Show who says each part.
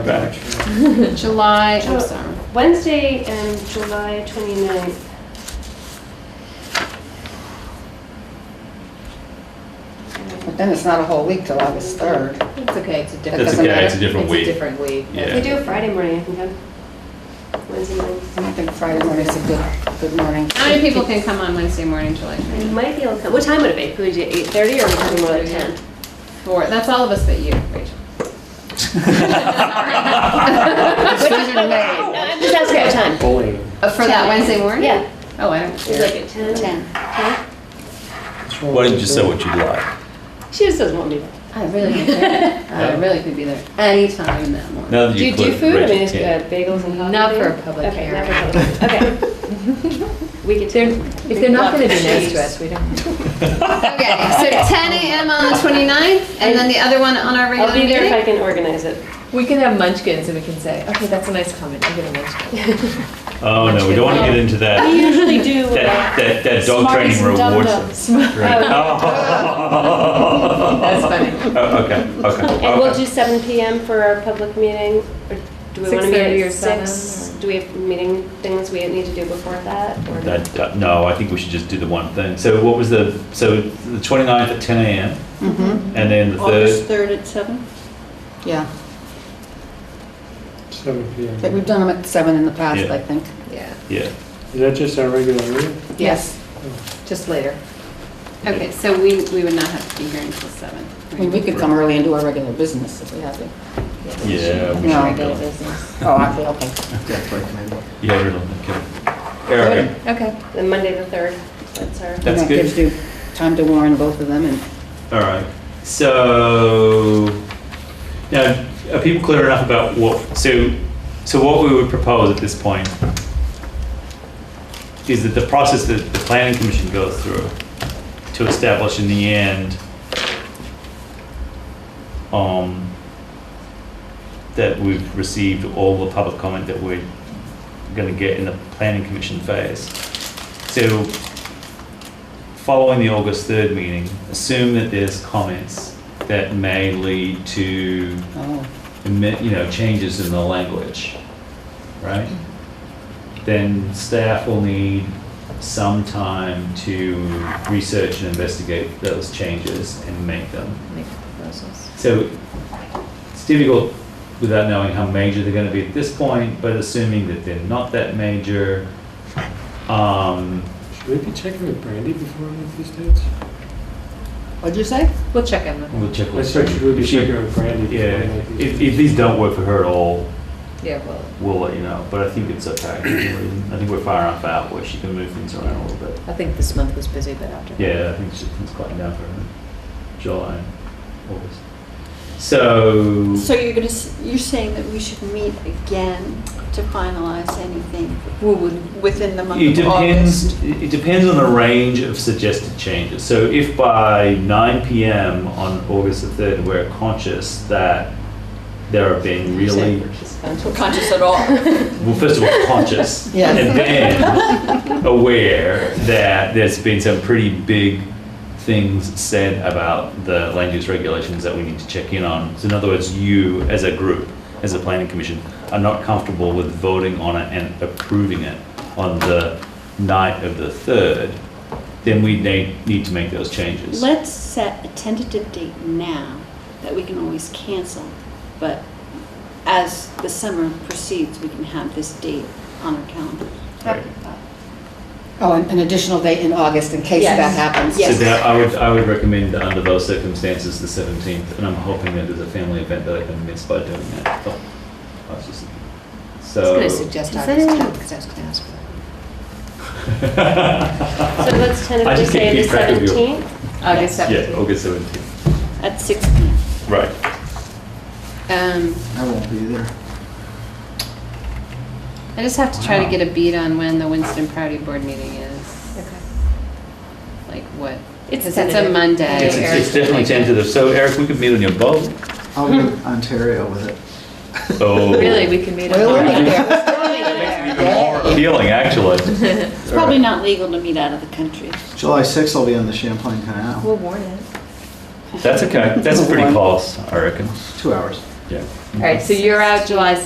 Speaker 1: back.
Speaker 2: July,
Speaker 3: Ju-
Speaker 2: I'm sorry.
Speaker 3: Wednesday and July 29th.
Speaker 4: But then it's not a whole week till August 3rd.
Speaker 2: It's okay, it's a different.
Speaker 4: That
Speaker 1: That's
Speaker 4: doesn't
Speaker 1: okay, it's a
Speaker 4: matter.
Speaker 1: different
Speaker 2: It's a
Speaker 1: week.
Speaker 2: different week.
Speaker 3: If we
Speaker 1: Yeah.
Speaker 3: do a Friday morning, I can come. Wednesday morning.
Speaker 4: And I think Friday morning's a good, good morning.
Speaker 2: How many people can come on Wednesday morning, July
Speaker 3: I might be able to come. What time would it be? Could we do 8:30 or are we talking more like 10?
Speaker 2: 24? That's all of us but you, Rachel.
Speaker 4: Decision made.
Speaker 3: No, I'm just asking what time.
Speaker 5: Bowling.
Speaker 2: Uh, For that Wednesday morning?
Speaker 3: Yeah.
Speaker 2: Oh, I don't
Speaker 3: It's like
Speaker 2: care.
Speaker 3: at 10?
Speaker 4: 10.
Speaker 1: Why don't you say what you'd like?
Speaker 3: She just doesn't want me.
Speaker 2: I really could be there. I really could be there anytime that morning.
Speaker 1: Now that
Speaker 3: Do
Speaker 1: you
Speaker 3: you do
Speaker 1: click
Speaker 3: food? I
Speaker 1: Rachel
Speaker 3: mean, is
Speaker 1: Kent.
Speaker 3: it bagels and coffee?
Speaker 2: Not
Speaker 3: thing?
Speaker 2: for a public
Speaker 3: Okay,
Speaker 2: hearing.
Speaker 3: not for public. Okay. We could.
Speaker 6: If they're not gonna be nice to us, we don't.
Speaker 2: Okay, so 10 AM on the 29th and then the other one on our regular
Speaker 3: I'll be
Speaker 2: meeting?
Speaker 3: there if I can organize it.
Speaker 6: We can have munchkins and we can say, okay, that's a nice comment, I'm gonna munchkin.
Speaker 1: Oh, no, we don't want to get into
Speaker 7: We
Speaker 1: that,
Speaker 7: usually do. uh,
Speaker 1: that, that, that dog
Speaker 7: Smarties
Speaker 1: training
Speaker 7: and
Speaker 1: rewards.
Speaker 7: Dum-Dums.
Speaker 1: Right. Oh.
Speaker 6: That's funny.
Speaker 1: Oh, okay, okay.
Speaker 3: And we'll
Speaker 1: okay.
Speaker 3: do seven PM for our public meeting, or do we want to
Speaker 6: 6:30
Speaker 3: meet
Speaker 6: or
Speaker 3: at six?
Speaker 6: 7:00
Speaker 3: Do we have meeting things we need to do before that, or?
Speaker 1: That- that- no, I think we should just do the one thing. So what was the, so the 29th at 10 a.m. and then the
Speaker 7: August
Speaker 1: 3rd,
Speaker 7: 3rd at 7?
Speaker 4: Mm-hmm. Yeah,
Speaker 5: Seven P
Speaker 4: But we've
Speaker 5: M.
Speaker 4: done them at 7 in the past,
Speaker 1: Yeah.
Speaker 4: I think.
Speaker 6: Yeah,
Speaker 1: yeah.
Speaker 5: Is that just our regular meeting?
Speaker 4: Yes.
Speaker 6: just later.
Speaker 2: Okay, so we, we would not have to be here until 7.
Speaker 4: I mean, we could come early and do our regular business if we have to.
Speaker 1: Yeah. we
Speaker 4: No.
Speaker 1: should go.
Speaker 4: Oh, I feel, okay.
Speaker 1: Yeah, really, okay. Eric,
Speaker 6: Okay.
Speaker 3: Then Monday the third, that's our.
Speaker 1: That's
Speaker 4: And
Speaker 1: good.
Speaker 4: That gives you time to warn both of them and
Speaker 1: all right. So, now, are people clear enough about what, so, so what we would propose at this point is that the process that the planning commission goes through to establish in the end, um, that we've received all the public comment that we're gonna get in the planning commission phase. So, following the August third meeting, assume that there's comments that may lead to,
Speaker 4: Oh,
Speaker 1: admit- you know, changes in the language, right? Then staff will need some time to research and investigate those changes and make them.
Speaker 6: Make proposals.
Speaker 1: So it's difficult without knowing how major they're gonna be at this point, but assuming that they're not that major, um,
Speaker 5: Should we be checking with Brandy before we make these dates?
Speaker 4: what'd you say?
Speaker 6: We'll check in with them.
Speaker 1: we'll check
Speaker 5: I
Speaker 1: with.
Speaker 5: said, Oh, should we be
Speaker 1: if she-
Speaker 5: checking with Brandy before we
Speaker 1: Yeah,
Speaker 5: make these?
Speaker 1: if, if these don't work for her at all,
Speaker 6: Yeah, well,
Speaker 1: we'll let you know, but I think it's okay. I think we're far enough out where she can move things around a little bit.
Speaker 6: I think this month was busy, but after. that-
Speaker 1: Yeah, I think she, things quieting down for her, July, and August. So,
Speaker 7: So you're gonna, s- you're saying that we should meet again to finalize anything
Speaker 6: We would,
Speaker 7: within the month
Speaker 1: it
Speaker 7: of August?
Speaker 1: depends, it depends on the range of suggested changes. So if by nine PM on August the third, we're conscious that there have been really,
Speaker 7: We're Conscious at all?
Speaker 1: well, first of all, conscious.
Speaker 4: Yes.
Speaker 1: And then aware that there's been some pretty big things said about the land use regulations that we need to check in on. So in other words, you as a group, as a planning commission, are not comfortable with voting on it and approving it on the night of the third, then we need, need to make those changes.
Speaker 7: Let's set a tentative date now that we can always cancel, but as the summer proceeds, we can have this date on our calendar.
Speaker 1: Right.
Speaker 4: Oh, an an additional date in August in case
Speaker 7: Yes.
Speaker 4: that happens.
Speaker 1: So
Speaker 7: Yes.
Speaker 1: that, I would, I would recommend that under those circumstances, the seventeenth, and I'm hoping that there's a family event that I can miss by doing that. Oh, I was just-
Speaker 6: I was
Speaker 1: So.
Speaker 6: gonna suggest
Speaker 2: Does
Speaker 6: August
Speaker 2: anyone-
Speaker 6: 10th, because I was gonna ask for it.
Speaker 3: So let's
Speaker 1: I
Speaker 3: tentatively
Speaker 1: just can't
Speaker 3: say the
Speaker 1: keep track of you.
Speaker 3: seventeenth
Speaker 2: August 7th.
Speaker 1: Yeah, August seventeenth.
Speaker 7: At six P M.
Speaker 1: Right.
Speaker 2: Um,
Speaker 8: I won't be there.
Speaker 2: I just have to try to get a beat on when the Winston Proudy board meeting is,
Speaker 6: Okay.
Speaker 2: like what? Because
Speaker 6: It's
Speaker 2: it's a
Speaker 6: tentative.
Speaker 2: Monday.
Speaker 1: It's, it's-
Speaker 2: Eric's
Speaker 1: it's definitely
Speaker 2: like-
Speaker 1: tentative. So Eric, we could meet on your boat.
Speaker 8: I'll be in Ontario with it.
Speaker 1: Oh.
Speaker 6: Really, we can meet up.
Speaker 4: We'll meet there.
Speaker 1: More appealing, actually.
Speaker 7: It's probably not legal to meet out of the country.
Speaker 8: July 6th, I'll be on the Champlain Canal.
Speaker 6: We'll warn it.
Speaker 1: That's okay. That's pretty close, I reckon.
Speaker 8: Two hours.
Speaker 1: Yeah.
Speaker 6: All right, so you're out July